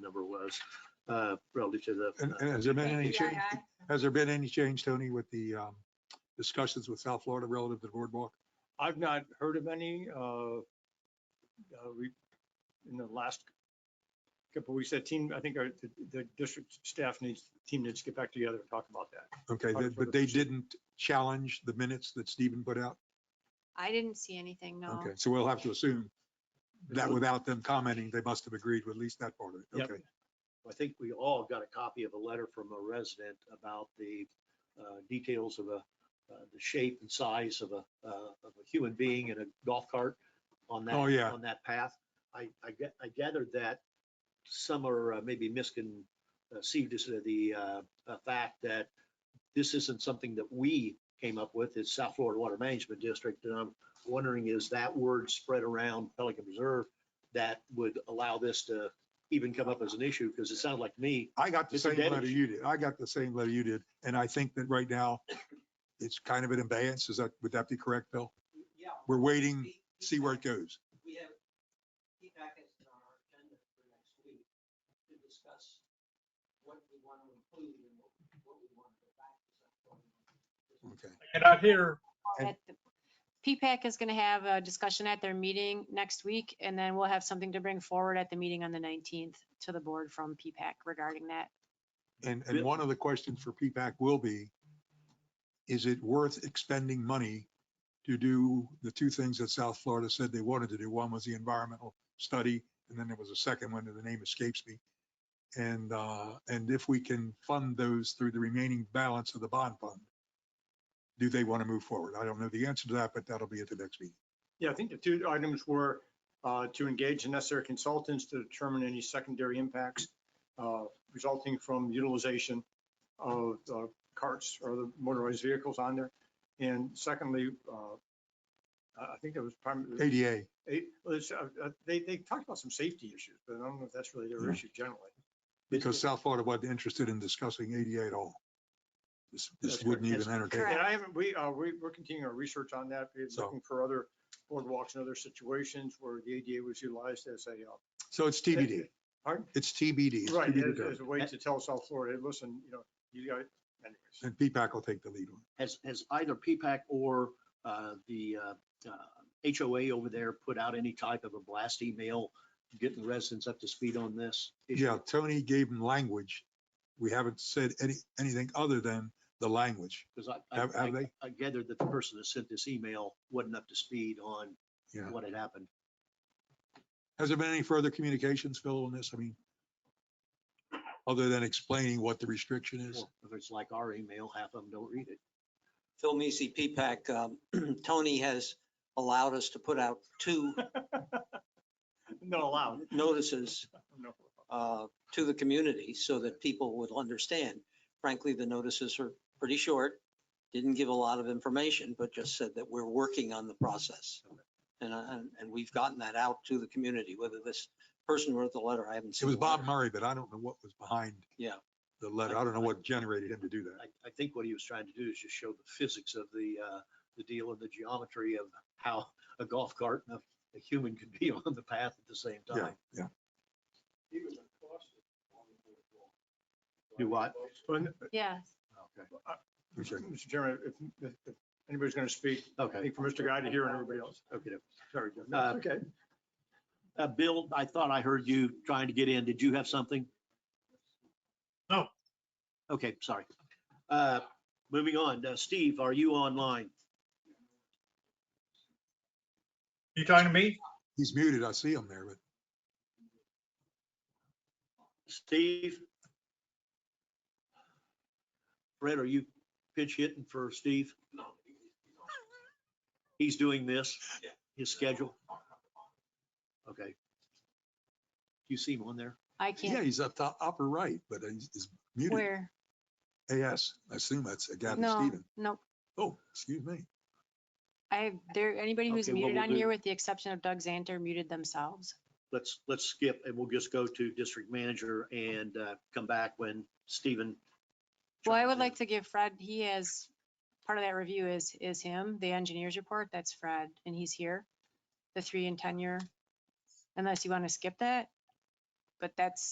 number was uh, relative to the. And uh, and has there been Thank any you, change, Guy. has there been any change, Tony, with the um, discussions with South Florida relative to the boardwalk? I've not heard of any, uh, uh, re- in the last couple weeks, that team, I think our, the, the district staff needs, team needs to get back together and talk about that. Okay, Part they- of but the they procedure. didn't challenge the minutes that Stephen put out? I didn't see anything, no. Okay, so we'll have to assume that without them commenting, they must have agreed with at least that part of it. Yep. Okay. I think we all got a copy of a letter from a resident about the uh, details of a, uh, the shape and size of a, uh, of a human being in a golf cart on that. Oh, yeah. On that path. I, I ga- I gathered that some are uh, maybe misconceived as to the uh, uh, fact that this isn't something that we came up with. It's South Florida Water Management District. And I'm wondering, is that word spread around Pelican Reserve that would allow this to even come up as an issue? Because it sounded like to me, I got the Mr. same letter Dedish. you did. I got the same letter you did. And I think that right now, it's kind of an abeyance. Is that, would that be correct, Bill? Yeah. We're waiting, we- we Hmm. see where it have- goes. We have, feedback is on our agenda for next week to discuss what we want to include and what, what we want to go back to. Okay. And I hear, And- At the- PPAC is going to have a discussion at their meeting next week, and then we'll have something to bring forward at the meeting on the 19th to the board from PPAC regarding that. And, and Bill- one of the questions for P-PAC will be, is it worth expending money to do the two things that South Florida said they wanted to do? One was the environmental study, and then there was a second one, and the name escapes me. And, uh, and if we can fund those through the remaining balance of the bond fund, do they want to move forward? I don't know the answer to that, but that'll be at the next meeting. Yeah, I think the two items were, uh, to engage the necessary consultants to determine any secondary impacts, uh, resulting from utilization of, uh, carts or the motorized vehicles on there. And secondly, uh, I I think it was primarily. ADA, Hey, well, it's, uh, uh, They, they talked about some safety issues, but I don't know if that's really their Yeah. issue generally. because South Florida wasn't interested in discussing ADA at all. This, this That's wouldn't correct. even entertain. Correct. And I haven't, we, uh, we, we're continuing our research on that, We're So- looking for other boardwalks and other situations where the ADA was utilized as a, uh, So it's TBD. Pardon? It's TBD. it's right, TBD as, determined. as a way to tell South Florida, listen, you know, you got, anyways. And P-PAC will take the lead on has, has either PPAC or uh, the uh, uh, HOA over there put out any type of a blast email getting residents up to speed on this? it. issue? Yeah, Tony gave them language. We haven't said any, anything other than the language. Because I, Have, have I- they? I gathered that the person that sent this email wasn't up to speed on Yeah. what had happened. Has there been any further communications, Phil, on this? I mean, other than explaining what the restriction is? Well, If it's like our email, half of them don't read it. Phil Meesey, P-PAC, um, Tony has allowed us to put out two Not allowed. notices No. uh, to the community so that people would understand. Frankly, the notices are pretty short, didn't give a lot of information, but just said that we're working on the process. And, I- and, and we've gotten that out to the community, whether this person wrote the letter, I haven't It seen. was the letter. Bob Murray, but I don't know what was behind. Yeah. The letter. I don't know what generated him to do that. I, I think what he was trying to do is just show the physics of the, uh, the deal and the geometry of how a golf cart and a, a human could be on the path at the same Yeah, time. yeah. Do Uh, what? But, Yeah, Okay. Okay. Mr. Chairman, if- if, if anybody's going to speak, I Okay. think for Mr. Guy to hear and everybody else. Okay. Sorry, Jeff. Uh, Okay. Uh, Bill, I thought I heard you trying to get in. Did you have something? No. Okay, sorry. Uh, moving on. Uh, Steve, are you online? you talking to me? He's muted. I see him there, but Steve? Fred, are you pitch hitting for Steve? He's doing this, his schedule? Okay. You see him on there? I yeah, can't, he's up top, upper right, but he's he's muted. where? Yes, I assume that's Gavin No, Stephen. nope. Oh, excuse me. I, there, anybody who's Okay, what muted we'll on do- here, with the exception of Doug Xanter, muted themselves. Let's, let's skip and we'll just go to district manager and uh, come back when Stephen. Well, I chimes would in. like to give Fred, he has, part of that review is, is him, the engineer's report, that's Fred, and he's here. The three and ten year, unless you want to skip that. But that's